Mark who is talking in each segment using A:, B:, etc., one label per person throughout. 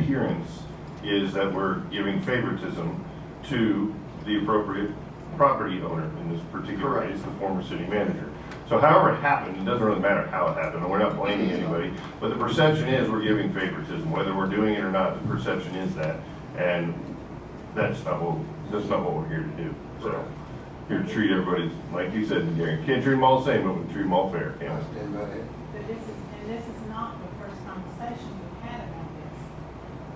A: hearings is that we're giving favoritism to the appropriate property owner in this particular
B: Correct.
A: case, the former city manager. So however it happened, it doesn't really matter how it happened, and we're not blaming anybody, but the perception is we're giving favoritism, whether we're doing it or not, the perception is that. And that's not what, that's not what we're here to do, so. Here to treat everybody, like you said, Darren, can't treat them all the same, but we can treat them all fair, can't we?
B: Stand by it.
C: But this is, and this is not the first conversation we've had about this.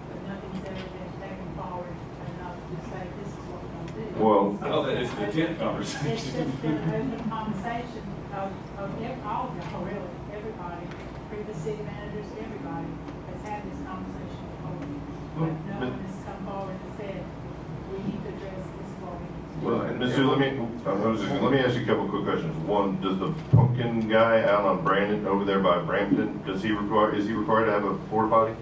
C: But nothing's ever been taken forward enough to say this is what we're gonna do.
A: Well-
D: No, that is the tenth
C: It's
D: conversation.
C: just been an open conversation of, of ev- all, of y'all, really, everybody, previous city managers, everybody has had this conversation before.
A: Well,
C: But no
A: but-
C: one has come forward and said, we need to address this for we
A: Well, Mr. Let me, I was just gonna- let me ask you a couple quick questions. One, does the pumpkin guy out on Brandon, over there by Brampton, does he require, is he required to have a porta potty?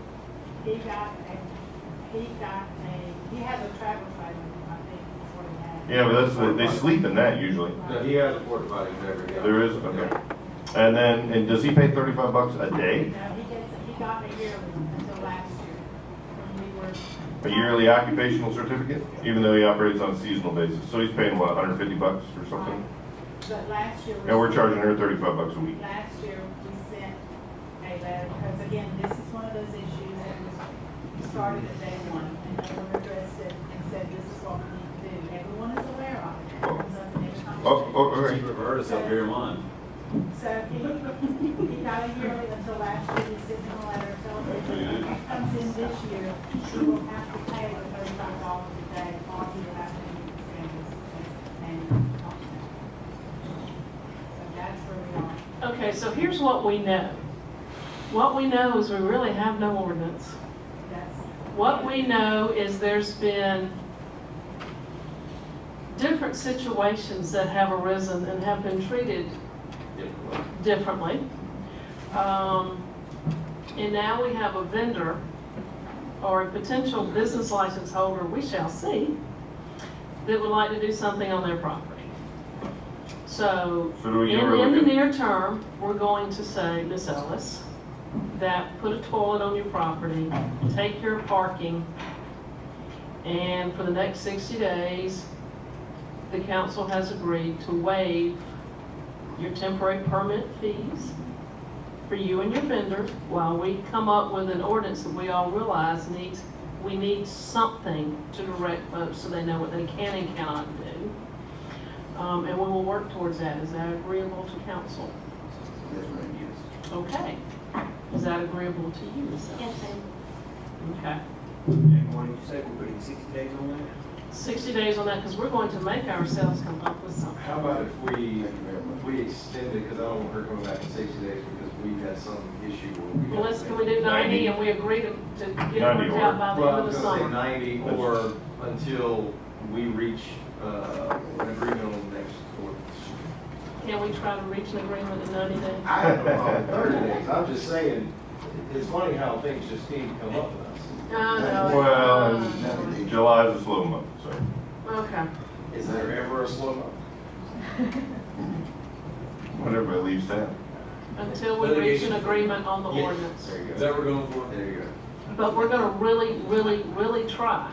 C: He got a, he got a, he has a travel trailer, I think, is what he had.
A: Yeah, but that's, they sleep in that usually.
B: No, he has a porta potty in every house.
A: There is, okay. And then, and does he pay thirty-five bucks a day?
C: No, he gets, he got a yearly until last year,
A: A
C: when we were.
A: yearly occupational certificate, even though he operates on a seasonal basis? So he's paying, what, hundred fifty bucks or something?
C: But last year. we-
A: And we're charging her thirty-five bucks a week.
C: Last year, we sent a letter, because again, this is one of those issues that was started at day one, and no one addressed it and said, this is what we need to do. Everyone is aware of it. It comes up in every
A: Oh,
C: conversation.
A: oh, all right.
D: Chief Roberta's up here in line.
C: So he, he got a yearly until last year, he sent him a letter, tells him if he comes in this year, he will have to pay the thirty-five dollars a day, or he will have to meet the standards and, and, so that's where we are.
E: Okay, so here's what we know. What we know is we really have no ordinance.
C: That's,
E: What we know is there's been different situations that have arisen and have been treated differently. Um, And now we have a vendor or a potential business license holder, we shall see, that would like to do something on their property. So
A: So do we
E: in,
A: get rid of
E: in the
A: it?
E: near term, we're going to say, Miss Ellis, that put a toilet on your property, take your parking, and for the next 60 days, the council has agreed to waive your temporary permit fees for you and your vendor while we come up with an ordinance that we all realize needs, we need something to direct folks so they know what they can and cannot do. Um, and we will work towards that. Is that agreeable to council?
B: Yes, ma'am.
E: Okay. Is that agreeable to you, Ms. Ellis? Okay.
F: And what did you say, we're putting sixty days on that?
E: 60 days on that because we're going to make ourselves come up with something.
G: How about if we,
B: Thank you very much.
G: we extend it, because I don't want her coming back in sixty days, because we had some issue where we.
E: Well, let's, can we do
A: 90.
E: 90 and we agree to, to get it
A: 90
E: worked out by the
G: Well, I
E: end of the
G: was gonna say
E: summer?
G: ninety, or until we reach, uh, an agreement on the next ordinance.
E: Can we try to reach an agreement in 90 days?
B: Uh,
G: I have no problem with thirty days, I'm just saying, it's funny how things just seem to come up with us.
E: I know.
A: Well,
E: Uh,
A: July is a slow month, so.
E: Okay.
G: Is there ever a slow month?
A: When everybody leaves town.
E: Until we reach an
F: Litigation.
E: agreement on the
F: Yeah.
E: ordinance.
G: There you
F: Is
G: go,
F: that what we're going for?
G: there you go.
E: But we're gonna really, really, really try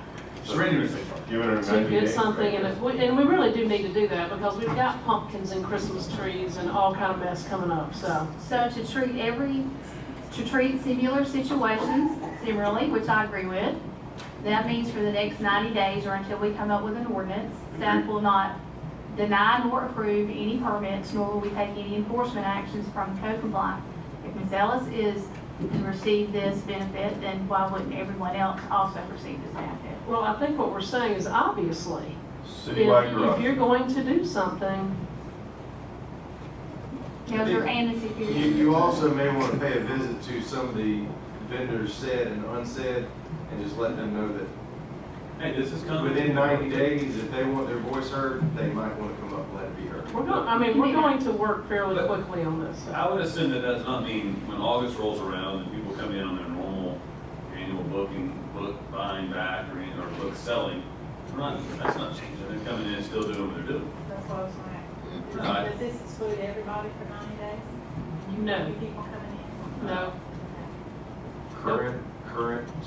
A: Surrender. Give it a
E: to
A: ninety
E: get
A: days.
E: something, and if we, and we really do need to do that, because we've got pumpkins and Christmas trees and all kind of mess coming up, so.
H: So to treat every, to treat similar situations similarly, which I agree with, that means for the next 90 days or until we come up with an ordinance, staff will not deny nor approve any permits, nor will we take any enforcement actions from code compliance. If Ms. Ellis is to receive this benefit, then why wouldn't everyone else also receive this benefit?
E: Well, I think what we're saying is obviously, if,
A: Citywide
E: if
A: garage.
E: you're going to do something,
H: Judge and the security.
G: You, you also may want to pay a visit to some of the vendors said and unsaid, and just let them know that
D: Hey, this is coming.
G: within ninety days, if they want their voice heard, they might want to come up and let it be heard.
E: we're going, I mean, we're
H: Yeah.
E: going to work fairly
D: But-
E: quickly on this. so.
D: I would assume that does not mean when August rolls around and people come in on their normal annual booking, book buying back or, any- or book selling, we're not, that's not changing. They're coming in and still doing what they're doing.
C: that's what I was going to
D: Right.
C: ask. Does this exclude everybody for ninety days?
E: No.
C: New people coming in?
E: No.
G: Current, current